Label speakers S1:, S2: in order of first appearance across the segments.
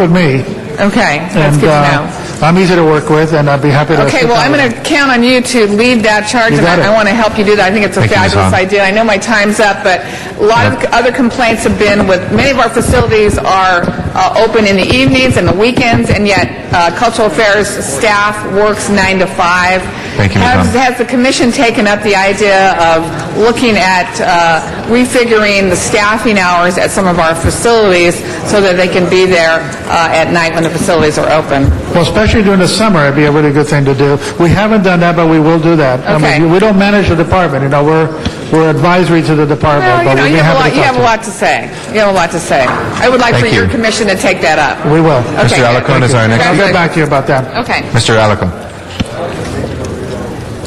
S1: with me.
S2: Okay,
S1: and
S2: that's good to
S1: uh,
S2: know.
S1: I'm easy to work with, and I'd be happy to...
S2: Okay,
S1: sit
S2: well,
S1: down
S2: I'm
S1: with
S2: going
S1: you.
S2: to count on you to lead that charge,
S1: You
S2: and
S1: got it.
S2: I I want to help you do that. I think it's a
S3: Thank you, Ms.
S2: fabulous
S3: Hahn.
S2: idea. I know my time's up, but a lot of other complaints have been with, many of our facilities are uh, open in the evenings and the weekends, and yet uh, Cultural Affairs staff works nine to five.
S3: Thank you,
S2: Has-
S3: Ms. Hahn.
S2: Has the commission taken up the idea of looking at uh, refiguring the staffing hours at some of our facilities so that they can be there uh, at night when the facilities are open?
S1: Well, especially during the summer, it'd be a really good thing to do. We haven't done that, but we will do that. I
S2: Okay.
S1: mean, we don't manage the department, you know, we're we're advisory to the
S2: Well,
S1: department,
S2: you
S1: but
S2: know,
S1: we'd
S2: you
S1: be
S2: have a lot,
S1: happy
S2: you
S1: to
S2: have a
S1: talk
S2: lot to say. You have a lot to say. I would like for
S3: Thank
S2: your
S3: you.
S2: commission to take that up.
S1: to you. We will.
S2: Okay,
S3: Mr.
S2: good.
S3: Alacon is our next.
S1: I'll get back to you about that.
S2: Okay.
S3: Mr. Alacon.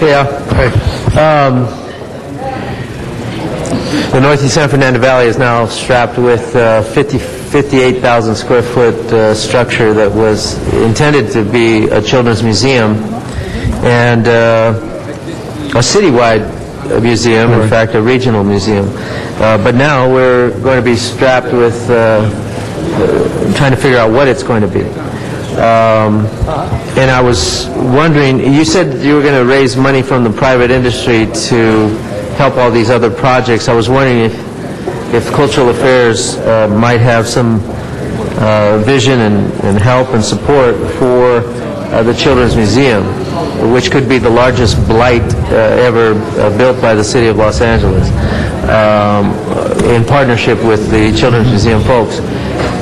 S4: Yeah. Um, The northeast San Fernando Valley is now strapped with uh, 50 58,000 square foot uh, structure that was intended to be a children's museum and uh, a citywide museum, in fact, a regional museum. Uh, But now we're going to be strapped with uh, trying to figure out what it's going to be. Um, And I was wondering, you said you were going to raise money from the private industry to help all these other projects. I was wondering if, if Cultural Affairs uh, might have some uh, vision and and help and support for uh, the Children's Museum, which could be the largest blight uh, ever uh, built by the city of Los Angeles, um, in partnership with the Children's Museum folks.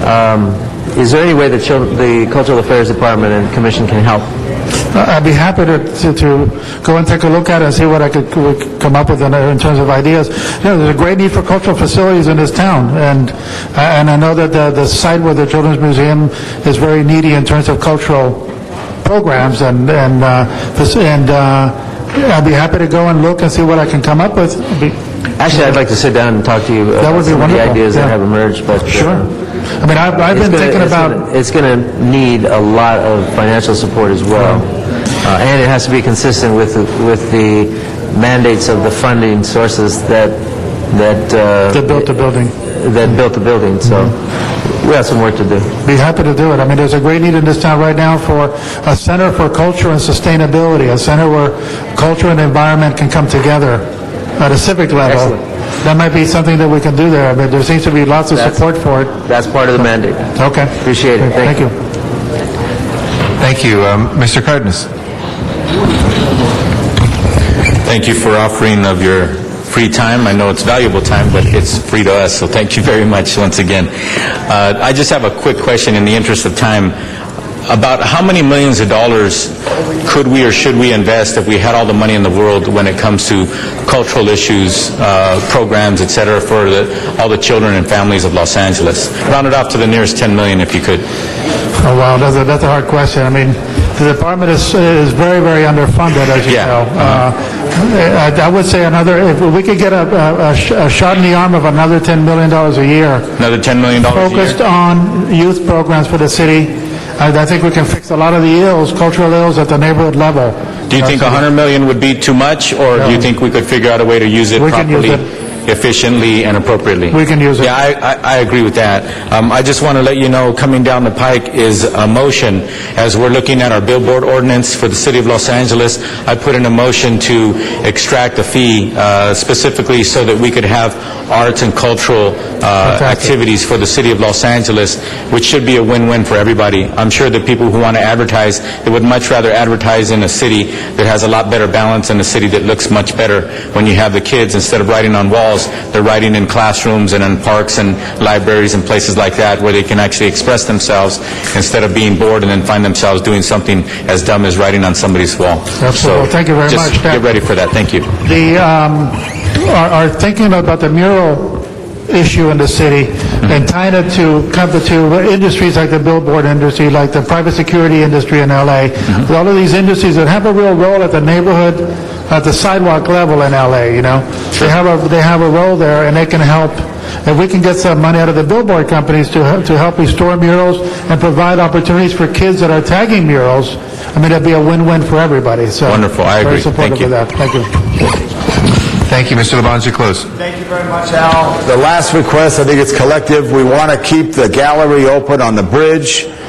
S4: Um, Is there any way the chil- the Cultural Affairs Department and Commission can help?
S1: I- Uh, I'd be happy to, to, to go and take a look at it and see what I could, could come up with in, in terms of ideas. You know, there's a great need for cultural facilities in this town, and, uh, and I know that the, the site where the Children's Museum is very needy in terms of cultural programs, and, and, uh, faci- and, uh, I'd be happy to go and look and see what I can come up with. I'd be-
S4: Actually, I'd like to sit down and talk to you
S1: That
S4: about
S1: would be
S4: some of the
S1: wonderful,
S4: ideas
S1: yeah.
S4: that have emerged, but... uh,
S1: Sure. I mean, I've, I've
S4: it's
S1: been
S4: gonna-
S1: thinking
S4: it's
S1: about...
S4: gonna- It's going to need a lot of financial support as well, Uh, and it has to be consistent with, the- with the mandates of the funding sources that, that... uh,
S1: That built the building.
S4: That built the building, so we have some work to do.
S1: Be happy to do it. I mean, there's a great need in this town right now for a center for culture and sustainability, a center where culture and environment can come together at a civic level. That might be something that we can do there, but there seems to be lots of
S4: That's-
S1: support for it.
S4: That's part of the mandate.
S1: Okay.
S4: Appreciate it.
S1: Thank
S4: Thank
S1: you.
S3: Thank you. Um, Mr. Cardenas.
S5: Thank you for offering of your free time. I know it's valuable time, but it's free to us, so thank you very much once again. Uh, I just have a quick question in the interest of time about how many millions of dollars could we or should we invest if we had all the money in the world when it comes to cultural issues, uh, programs, et cetera, for the, all the children and families of Los Angeles? Round it off to the nearest 10 million if you could.
S1: Oh, wow, that's a, that's a hard question. I mean, the department is, is very, very underfunded, as you
S5: Yeah.
S1: know. Uh, I I would say another, if we could get a- a a sh- a shot in the arm of another $10 million a year,
S5: Another $10 million a year?
S1: focused on youth programs for the city. I I think we can fix a lot of the ills, cultural ills at the neighborhood level.
S5: Do you think 100 million would be too much, or do you think we could figure out a way to use it
S1: We can use
S5: properly, efficiently, and appropriately?
S1: We can use it.
S5: Yeah, I- I I agree with that. Um, I just want to let you know, coming down the pike is a motion, as we're looking at our billboard ordinance for the city of Los Angeles, I put in a motion to extract a fee uh, specifically so that we could have arts and cultural uh, activities for the city of Los Angeles, which should be a win-win for everybody. I'm sure the people who want to advertise, they would much rather advertise in a city that has a lot better balance and a city that looks much better when you have the kids, instead of writing on walls, they're writing in classrooms and in parks and libraries and places like that where they can actually express themselves instead of being bored and then find themselves doing something as dumb as writing on somebody's wall.
S1: Absolutely.
S5: So
S1: Thank you very much.
S5: Just get ready for that. Thank you.
S1: The, um, are are thinking about the mural issue in the city and tying it to, come to industries like the billboard industry, like the private security industry in LA, all of these industries that have a real role at the neighborhood, at the sidewalk level in LA, you know? They have a, they have a role there and they can help. If we can get some money out of the billboard companies to, he- to help restore murals and provide opportunities for kids that are tagging murals, I mean, that'd be a win-win for everybody, so.
S5: Wonderful. I agree.
S1: Very
S5: Thank
S1: supportive
S5: you.
S1: of that. Thank you.
S3: Thank you. Mr. Labange, close.
S6: Thank you very much, Al. The last request, I think it's collective, we want to keep the gallery open on the bridge.